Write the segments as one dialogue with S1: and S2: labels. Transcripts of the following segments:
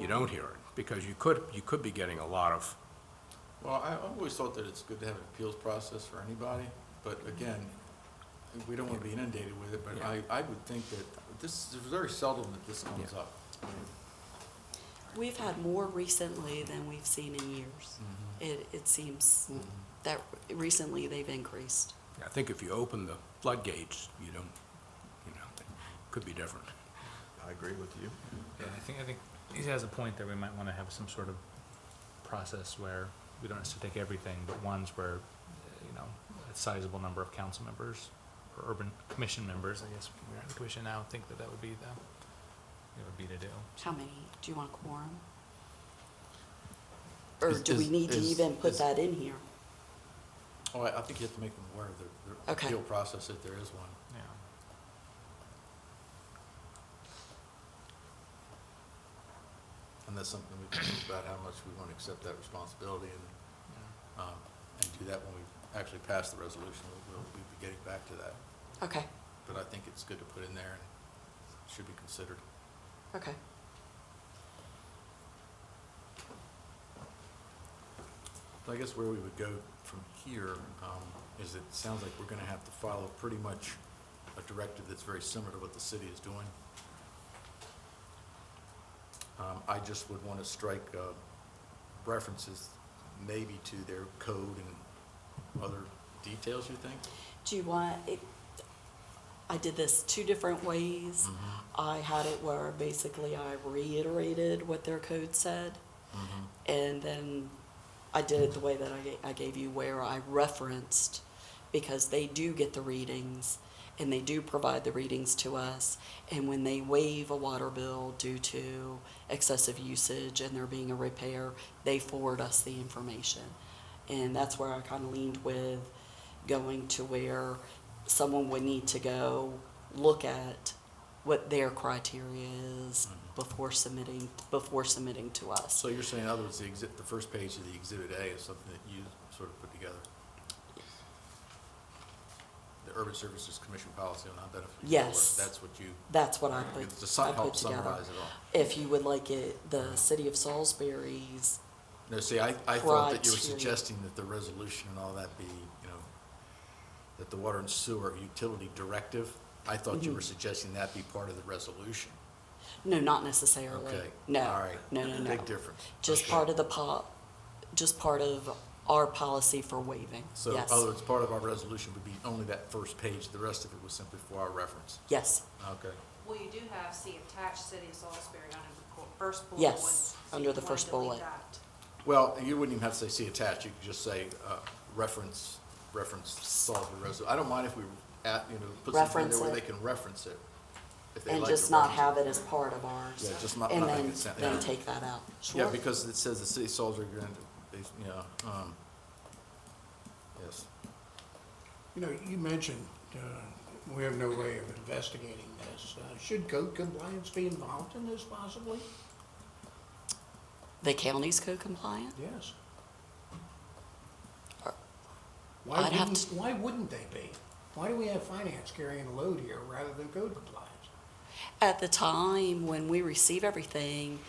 S1: you don't hear it, because you could, you could be getting a lot of,
S2: Well, I always thought that it's good to have an appeals process for anybody, but
S3: Mm-hmm.
S2: again, we don't want to be inundated with it, but I, I would think that this, is very seldom that this comes up.
S4: We've had more recently than we've seen in years.
S2: Mm-hmm.
S4: It, it seems that recently they've increased.
S1: I think if you open the floodgates, you don't, you know, it could be different.
S3: I agree with you.
S5: Yeah, I think, I think he has a point that we might wanna have some sort of process where we don't have to take everything, but ones where, uh, you know, a sizable number of council members or urban commission members, I guess, we're in the commission now, think that that would be the, it would be to do.
S4: How many? Do you want a quorum? Or
S2: Is-
S4: do we
S2: is-
S4: need to
S2: is-
S4: even put
S2: is-
S4: that in here?
S2: Oh, I, I think you have to make them aware of the, the
S4: Okay.
S2: appeal process if there is one.
S5: Yeah.
S2: And that's something we can think about, how much we want to accept that responsibility and,
S5: yeah.
S2: um, and do that when we actually pass the resolution. We'll, we'll be getting back to that.
S4: Okay,
S2: But I think it's good to put in there and should be considered.
S4: okay.
S2: So I guess where we would go from here um, is it sounds like we're going to have to follow pretty much a directive that's very similar to what the city is doing. Um, I just would want to strike uh, references maybe to their code and other details, you think?
S4: Do you want, it, I did this two different ways.
S2: Mm-hmm.
S4: I had it where basically I reiterated what their code said. And then I did it the way that I, ga- I gave you where I referenced, because they do get the readings and they do provide the readings to us. And when they waive a water bill due to excessive usage and there being a repair, they forward us the information. And that's where I kind of leaned with going to where someone would need to go look at what their criteria is before submitting, before submitting to us.
S2: So you're saying, in other words, the exhibit, the first page of the Exhibit A is something that you sort of put together? The Urban Services Commission policy on identification. of water,
S4: Yes.
S2: That's what you.
S4: That's what I put,
S2: It's
S4: I
S2: to
S4: put
S2: help
S4: together.
S2: summarize it all.
S4: If you would like it, the city of Salisbury's,
S2: No, see, I, I thought that you were
S4: Criteria.
S2: suggesting that the resolution and all that be, you know, that the water and sewer utility directive, I thought
S4: Mm-hmm.
S2: you were suggesting that be part of the resolution.
S4: no, not necessarily.
S2: Okay. All
S4: No,
S2: right.
S4: no, no, no.
S2: Big difference.
S4: Just
S2: Okay.
S4: part of the po, just part of our policy for waiving,
S2: So, in
S4: yes.
S2: other words, part of our resolution would be only that first page, the rest of it was simply for our reference.
S4: Yes,
S2: Okay.
S6: Well, you do have, see attached city of Salisbury under the cor- first bullet.
S4: Yes,
S6: one, so
S4: under
S6: you
S4: the
S6: wanna
S4: first
S6: delete
S4: bullet.
S6: that.
S2: Well, you wouldn't even have to say see attached, you could just say, uh, reference, reference Salisbury resolution. I don't mind if we, at, you know, put something in there where they
S4: Reference it.
S2: can reference it. if they
S4: and
S2: like
S4: just
S2: to
S4: not
S2: reference it.
S4: have it as part of ours.
S2: Yeah, just not-
S4: And
S2: not
S4: then,
S2: make it sound-
S4: then
S2: yeah.
S4: take that out, sure.
S2: Yeah, because it says the city of Salisbury, Grand- they, you know, um, yes.
S7: You know, you mentioned, uh, we have no way of investigating this. Uh, Should code compliance be involved in this possibly?
S4: The county's code compliant?
S7: Yes.
S4: Uh,
S7: Why
S4: I'd have
S7: wouldn't,
S4: to-
S7: why wouldn't they be? Why do we have finance carrying a load here rather than code compliance?
S4: At the time when we receive everything,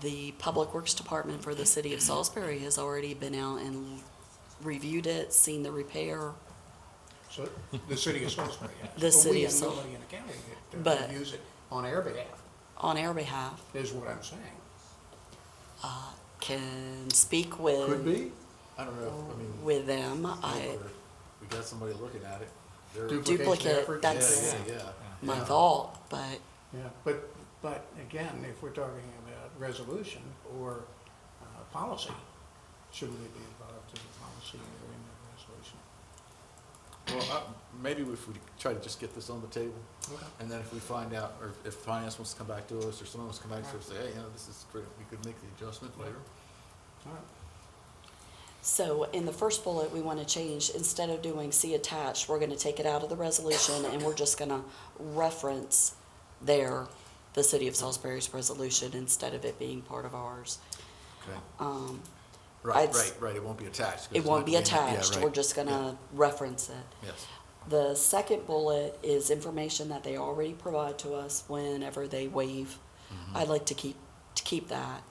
S4: the Public Works Department for the city of Salisbury has already been out and reviewed it, seen the repair.
S7: So, the city of Salisbury. has.
S4: The
S7: But
S4: city of Sul-
S7: We have nobody in the county that uh,
S4: But-
S7: would use it on our behalf,
S4: On our behalf,
S7: is what I'm saying.
S4: can speak with,
S2: be. I don't know, I mean,
S4: with them. I,
S2: we got somebody looking at it. They're-
S4: Duplicate,
S7: effort?
S4: that's-
S2: Yeah, yeah, yeah.
S4: my
S2: Yeah.
S4: thought, but
S7: Yeah, but, but again, if we're talking about resolution or uh, policy, shouldn't we be involved in the policy or in the resolution?
S2: Well, uh, maybe if we try to just get this on the table, and then if we find out, or if finance wants to come back to us, or someone wants to come back to us, say, hey, you know, this is great, we could make the adjustment later.
S7: All right.
S4: So in the first bullet, we want to change, instead of doing see attached, we're going to take it out of the resolution and we're just going to reference there the city of Salisbury's resolution instead of it being part of ours.
S2: Okay.
S4: Um,
S2: Right,
S4: I'd-
S2: right, right, it won't be attached. 'cause
S4: It
S2: it's
S4: won't
S2: not
S4: be
S2: gonna in it. Yeah,
S4: attached, we're
S2: right.
S4: just going to reference it.
S2: Yes,
S4: The second bullet
S2: Mm-hmm.
S4: is information that they already provide to us whenever they waive. I'd like to keep to keep that.